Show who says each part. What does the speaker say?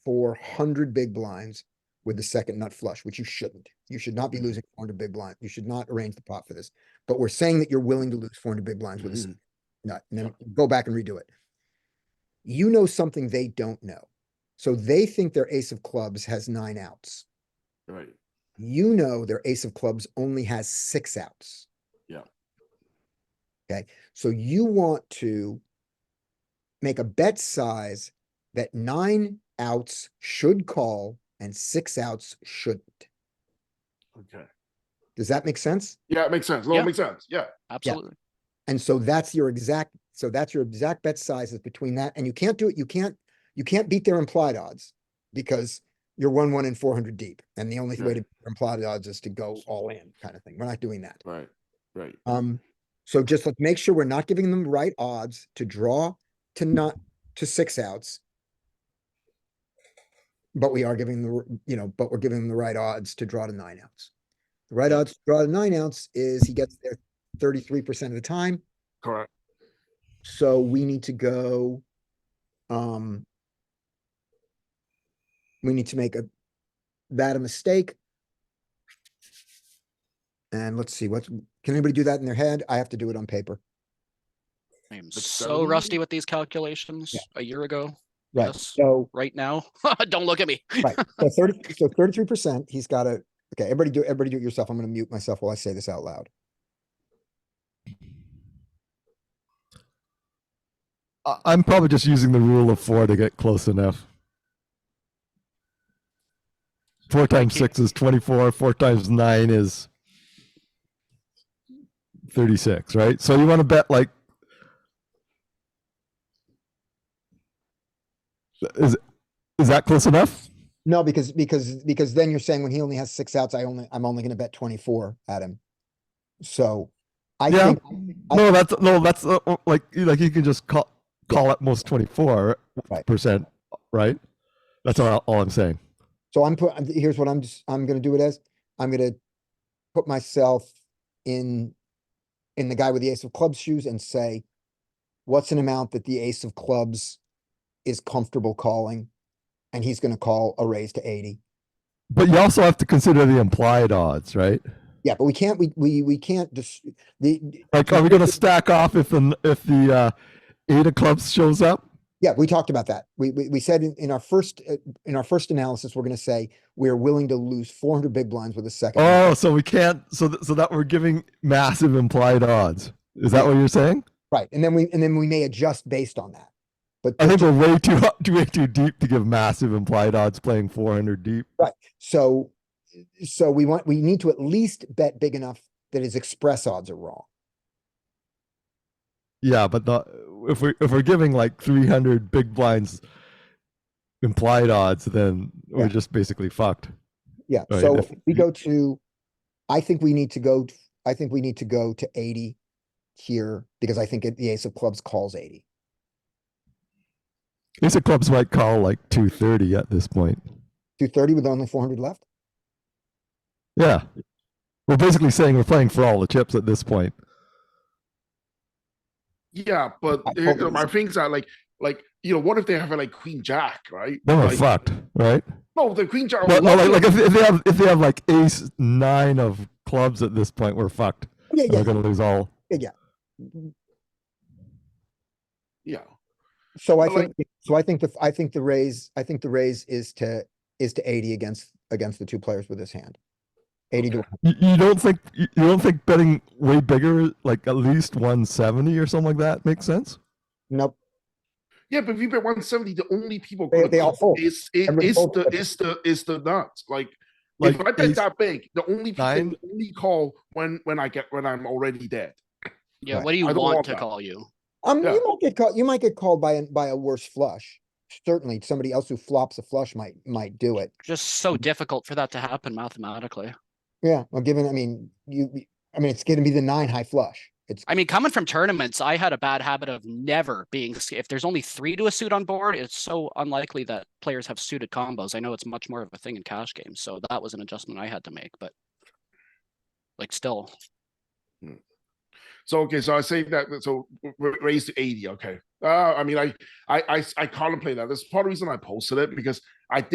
Speaker 1: four hundred big blinds with the second nut flush, which you shouldn't. You should not be losing four hundred big blinds. You should not arrange the pot for this. But we're saying that you're willing to lose four hundred big blinds with a second nut, and then go back and redo it. You know something they don't know. So they think their ace of clubs has nine outs.
Speaker 2: Right.
Speaker 1: You know their ace of clubs only has six outs.
Speaker 2: Yeah.
Speaker 1: Okay, so you want to make a bet size that nine outs should call and six outs shouldn't.
Speaker 2: Okay.
Speaker 1: Does that make sense?
Speaker 2: Yeah, it makes sense. No,
Speaker 3: Yeah.
Speaker 2: it makes sense. Yeah.
Speaker 3: Absolutely.
Speaker 1: And so that's your exact, so that's your exact bet sizes between that, and you can't do it, you can't, you can't beat their implied odds. Because you're one, one and four hundred deep, and the only way
Speaker 2: Right.
Speaker 1: to beat their implied odds is to go all in kind of thing. We're not doing that.
Speaker 2: Right. Right.
Speaker 1: Um, so just like make sure we're not giving them the right odds to draw to not to six outs. But we are giving the, r- you know, but we're giving them the right odds to draw to nine outs. The right odds to draw to nine outs is he gets there thirty-three percent of the time,
Speaker 2: Correct.
Speaker 1: so we need to go. Um. We need to make a, that a mistake. And let's see, what's can anybody do that in their head? I have to do it on paper.
Speaker 3: I am
Speaker 2: That's
Speaker 3: so
Speaker 2: seven.
Speaker 3: rusty with these calculations a year ago,
Speaker 1: Right,
Speaker 3: Yes.
Speaker 1: so,
Speaker 3: right now. Don't look at me.
Speaker 1: right, so thirty, so thirty-three percent, he's got a, okay, everybody do, everybody do it yourself. I'm gonna mute myself while I say this out loud.
Speaker 4: I- I'm probably just using the rule of four to get close enough. Four times six is 24. Four times nine is 36, right? So you want to bet like. Is, is that close enough?
Speaker 1: No, because, because, because then you're saying when he only has six outs, I only, I'm only gonna bet twenty-four at him. So, I
Speaker 4: Yeah.
Speaker 1: think, I-
Speaker 4: No, that's no, that's uh, uh, like you- like you can just call call at most 24
Speaker 1: Right.
Speaker 4: percent, right? That's all, all I'm saying.
Speaker 1: so I'm put, here's what I'm just, I'm gonna do it as, I'm gonna put myself in, in the guy with the ace of clubs shoes and say, what's an amount that the ace of clubs is comfortable calling? And he's gonna call a raise to eighty.
Speaker 4: But you also have to consider the implied odds, right?
Speaker 1: Yeah, but we can't, we, we, we can't just, the, the-
Speaker 4: Like, are we gonna stack off if the n- if the uh, eight of clubs shows up?
Speaker 1: yeah, we talked about that. We, we, we said in, in our first, uh, in our first analysis, we're gonna say, we're willing to lose four hundred big blinds with a second. hand.
Speaker 4: Oh, so we can't. So th- so that we're giving massive implied odds. Is that what you're saying?
Speaker 1: Right, and then we, and then we may adjust based on that. But,
Speaker 4: I think we're way too hu- way too deep to give massive implied odds playing 400 deep.
Speaker 1: so, so we want, we need to at least bet big enough that his express odds are wrong.
Speaker 4: Yeah, but the if we if we're giving like 300 big blinds implied odds, then
Speaker 1: Yeah.
Speaker 4: we're just basically fucked.
Speaker 1: Yeah,
Speaker 4: Right,
Speaker 1: so
Speaker 4: if
Speaker 1: if we
Speaker 4: you-
Speaker 1: go to, I think we need to go, t- I think we need to go to eighty here, because I think it- the ace of clubs calls eighty.
Speaker 4: Ace of clubs might call like 230 at this point.
Speaker 1: Two thirty with only four hundred left?
Speaker 4: Yeah. We're basically saying we're playing for all the chips at this point.
Speaker 2: Yeah, but
Speaker 1: I
Speaker 2: uh, you
Speaker 1: hope
Speaker 2: know,
Speaker 1: it's-
Speaker 2: my things are like, like you know, what if they have like Queen Jack, right?
Speaker 4: Then we're
Speaker 2: Like,
Speaker 4: fucked, right?
Speaker 2: No, the Queen Jack.
Speaker 4: But no, like,
Speaker 2: lucky-
Speaker 4: like if, if they have if they have like ace nine of clubs at this point, we're fucked.
Speaker 1: Yeah,
Speaker 4: And
Speaker 1: yeah,
Speaker 4: We're gonna lose all.
Speaker 2: yeah.
Speaker 1: So I
Speaker 2: But, like-
Speaker 1: think, so I think the, I think the raise, I think the raise is to, is to eighty against, against the two players with his hand. Eighty to,
Speaker 2: Okay.
Speaker 1: 100.
Speaker 4: You, you don't think you you don't think betting way bigger, like at least one seventy or something like that, makes sense?
Speaker 1: nope,
Speaker 2: Yeah, but if you bet 170, the only people
Speaker 1: They-
Speaker 2: gonna
Speaker 1: they all
Speaker 2: call
Speaker 1: fold.
Speaker 2: is is,
Speaker 1: Everybody
Speaker 2: is
Speaker 1: folds
Speaker 2: the
Speaker 1: everything.
Speaker 2: is the is the nuts. Like,
Speaker 4: Like
Speaker 2: if I bet
Speaker 4: ace-
Speaker 2: that big, the only people
Speaker 4: nine?
Speaker 2: only call when when I get when I'm already dead.
Speaker 3: Yeah,
Speaker 1: Right.
Speaker 3: what do you
Speaker 2: I don't
Speaker 3: want
Speaker 2: want
Speaker 3: to
Speaker 2: that.
Speaker 3: call you?
Speaker 1: um,
Speaker 2: Yeah.
Speaker 1: you might get caught, you might get called by, a by a worse flush. Certainly, somebody else who flops a flush might, might do it.
Speaker 3: Just so
Speaker 2: Mm-hmm.
Speaker 3: difficult for that to happen mathematically.
Speaker 1: Yeah, well, given, I mean, you, you- I mean, it's gonna be the nine high flush. It's,
Speaker 3: I mean, coming from tournaments, I had a bad habit of never being, s- if there's only three to a suit on board, it's so unlikely that players have suited combos. I know it's much more of a thing in cash games, so that was an adjustment I had to make, but like still,
Speaker 2: So okay, so I say that so r- r- Ah, raise to 80. Okay. Uh, I mean, I I I, s- I contemplate that. That's part of the reason I posted it because